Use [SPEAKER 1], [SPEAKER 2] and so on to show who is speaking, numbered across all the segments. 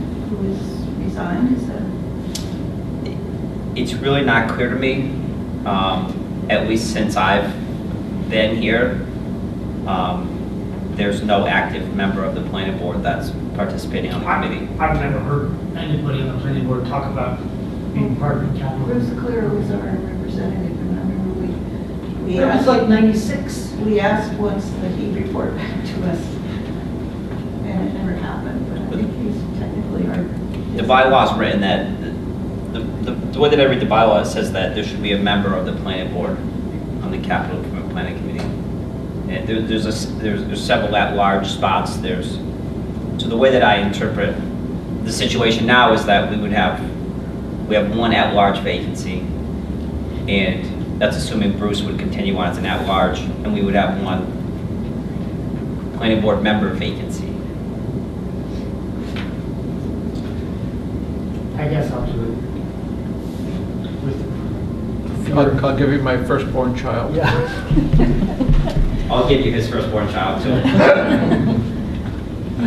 [SPEAKER 1] who has resigned, is that?
[SPEAKER 2] It's really not clear to me, um, at least since I've been here. Um, There's no active member of the planning board that's participating on the
[SPEAKER 3] I-
[SPEAKER 2] committee.
[SPEAKER 3] I've never heard anybody on the planning board talk about being part of the
[SPEAKER 1] Bruce
[SPEAKER 3] capital.
[SPEAKER 1] Clear was our representative, and I remember we, we
[SPEAKER 3] It was
[SPEAKER 1] asked,
[SPEAKER 3] like ninety-six.
[SPEAKER 1] we asked once that he report back to us, and it never happened, but I think he's technically our.
[SPEAKER 2] The bylaw is written that, the, the the way that I read the bylaw, it says that there should be a member of the planning board on the capital Com- planning committee. And there, there's a, s- there's there's several at-large spots, there's, so the way that I interpret the situation now is that we would have, we have one at-large vacancy, and that's assuming Bruce would continue on as an at-large, and we would have one planning board member vacancy.
[SPEAKER 3] I guess I'll do it. With-
[SPEAKER 4] I'll I'll give you my firstborn child.
[SPEAKER 3] Yeah.
[SPEAKER 2] I'll give you his firstborn child, too.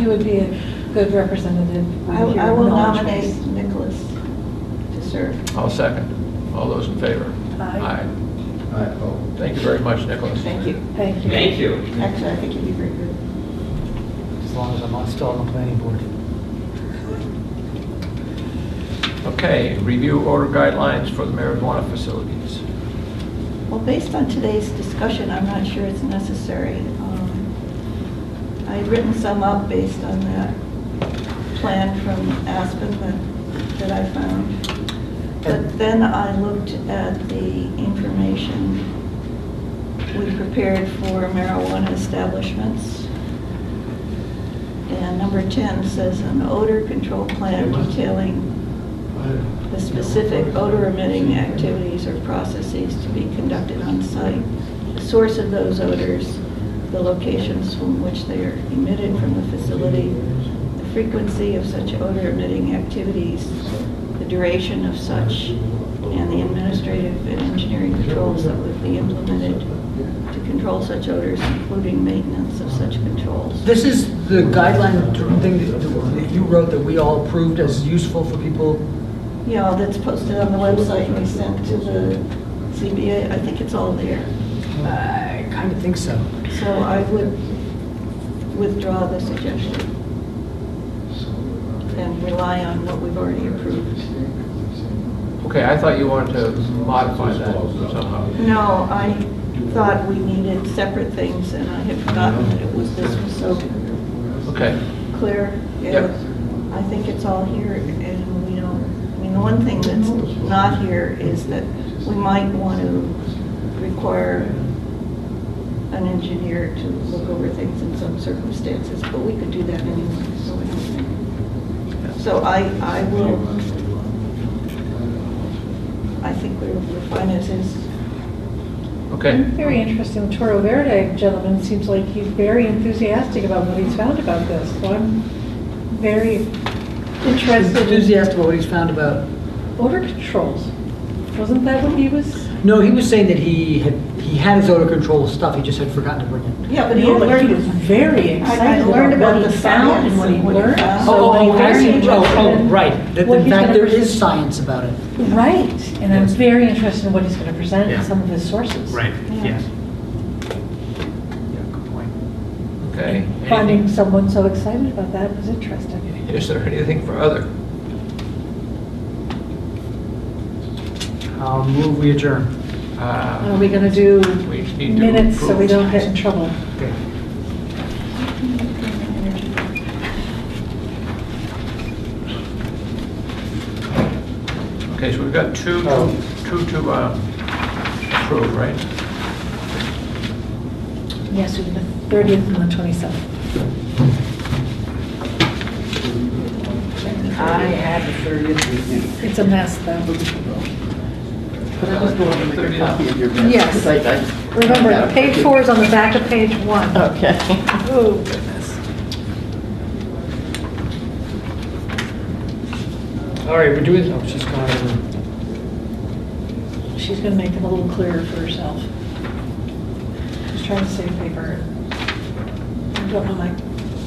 [SPEAKER 5] You would be a good representative.
[SPEAKER 1] I,
[SPEAKER 5] with
[SPEAKER 1] I
[SPEAKER 5] your
[SPEAKER 1] will
[SPEAKER 5] knowledge
[SPEAKER 1] nominate
[SPEAKER 5] base.
[SPEAKER 1] Nicholas to serve.
[SPEAKER 4] I'll second. All those in favor?
[SPEAKER 5] Aye.
[SPEAKER 6] Aye, oh.
[SPEAKER 4] Thank you very much, Nicholas.
[SPEAKER 1] Thank you.
[SPEAKER 5] Thank you.
[SPEAKER 2] Thank you.
[SPEAKER 1] Actually, I think you'd be very good.
[SPEAKER 3] As long as I'm not still on the planning board.
[SPEAKER 4] Okay, review order guidelines for the marijuana facilities.
[SPEAKER 1] Well, based on today's discussion, I'm not sure it's necessary. Um, I had written some up based on that plan from Aspen that, that I found. But then I looked at the information we prepared for marijuana establishments. And number 10 says an odor control plan detailing the specific odor emitting activities or processes to be conducted on site, the source of those odors, the locations from which they are emitted from the facility, the frequency of such odor emitting activities, the duration of such, and the administrative and engineering controls that would be implemented to control such odors, including maintenance of such controls.
[SPEAKER 7] This is the guideline thing that that you wrote that we all approved as useful for people.
[SPEAKER 1] You know, that's posted on the website we sent to the CBA. I think it's all there.
[SPEAKER 7] I kind of think so.
[SPEAKER 1] So I would withdraw the suggestion and rely on what we've already approved.
[SPEAKER 4] Okay, I thought you wanted to modify that somehow.
[SPEAKER 1] No, I thought we needed separate things, and I had forgotten that it was, this was so
[SPEAKER 4] Okay,
[SPEAKER 1] clear.
[SPEAKER 4] Yep.
[SPEAKER 1] I think it's all here, and we don't, I mean, the one thing that's not here is that we might want to require an engineer to look over things in some circumstances, but we could do that anyway, so I don't think. So I, I will, I think we're, we're fine as is.
[SPEAKER 4] okay.
[SPEAKER 5] Very interesting. Toro Verde gentleman seems like he's very enthusiastic about what he's found about this. So I'm very interested in
[SPEAKER 7] Enthusiastic about what he's found about.
[SPEAKER 5] odor controls. Wasn't that what he was?
[SPEAKER 7] No, he was saying that he had, he had his odor control stuff, he just had forgotten to bring it.
[SPEAKER 1] Yeah, but he
[SPEAKER 5] No,
[SPEAKER 1] had
[SPEAKER 5] but he
[SPEAKER 1] learned
[SPEAKER 5] was very
[SPEAKER 1] I- I
[SPEAKER 5] excited
[SPEAKER 1] learned
[SPEAKER 5] about
[SPEAKER 1] about
[SPEAKER 5] what he
[SPEAKER 1] the
[SPEAKER 5] found
[SPEAKER 1] science
[SPEAKER 5] and what he
[SPEAKER 1] and what he
[SPEAKER 5] learned.
[SPEAKER 1] found.
[SPEAKER 5] So
[SPEAKER 7] Oh,
[SPEAKER 5] I'm
[SPEAKER 7] oh, I
[SPEAKER 5] very
[SPEAKER 7] see. Oh,
[SPEAKER 5] interested
[SPEAKER 7] oh,
[SPEAKER 5] in
[SPEAKER 7] right. That
[SPEAKER 5] what
[SPEAKER 7] In
[SPEAKER 5] he's
[SPEAKER 7] fact,
[SPEAKER 5] gonna
[SPEAKER 7] there
[SPEAKER 5] present.
[SPEAKER 7] is science about it.
[SPEAKER 5] Right, and I'm
[SPEAKER 7] Yes.
[SPEAKER 5] very interested in what he's going to present
[SPEAKER 7] Yeah.
[SPEAKER 5] and some of his sources.
[SPEAKER 1] Yeah.
[SPEAKER 7] Yeah, good point.
[SPEAKER 4] Okay.
[SPEAKER 5] Finding someone so excited about that was interesting.
[SPEAKER 4] Is there anything for other?
[SPEAKER 7] I'll move, we adjourn.
[SPEAKER 5] Are
[SPEAKER 4] Uh,
[SPEAKER 5] we going to do
[SPEAKER 4] We need to
[SPEAKER 5] minutes so we
[SPEAKER 4] approve.
[SPEAKER 5] don't get in trouble?
[SPEAKER 7] Okay.
[SPEAKER 4] Okay, so we've got two,
[SPEAKER 3] Oh.
[SPEAKER 4] two to uh, approve, right?
[SPEAKER 5] Yes, we did the 30th and the 27th.
[SPEAKER 7] I had the thirtieth meeting.
[SPEAKER 5] It's a mess, though.
[SPEAKER 6] But I was going to make a copy of your minutes.
[SPEAKER 5] Yes.
[SPEAKER 6] I- I-
[SPEAKER 5] Remember, page four is on the back of page one.
[SPEAKER 6] Okay.
[SPEAKER 5] Oh, goodness.
[SPEAKER 7] All right, we're doing, oh, she's gone.
[SPEAKER 5] She's going to make them a little clearer for herself. She's trying to save paper. I don't know my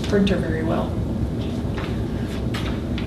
[SPEAKER 5] printer very well.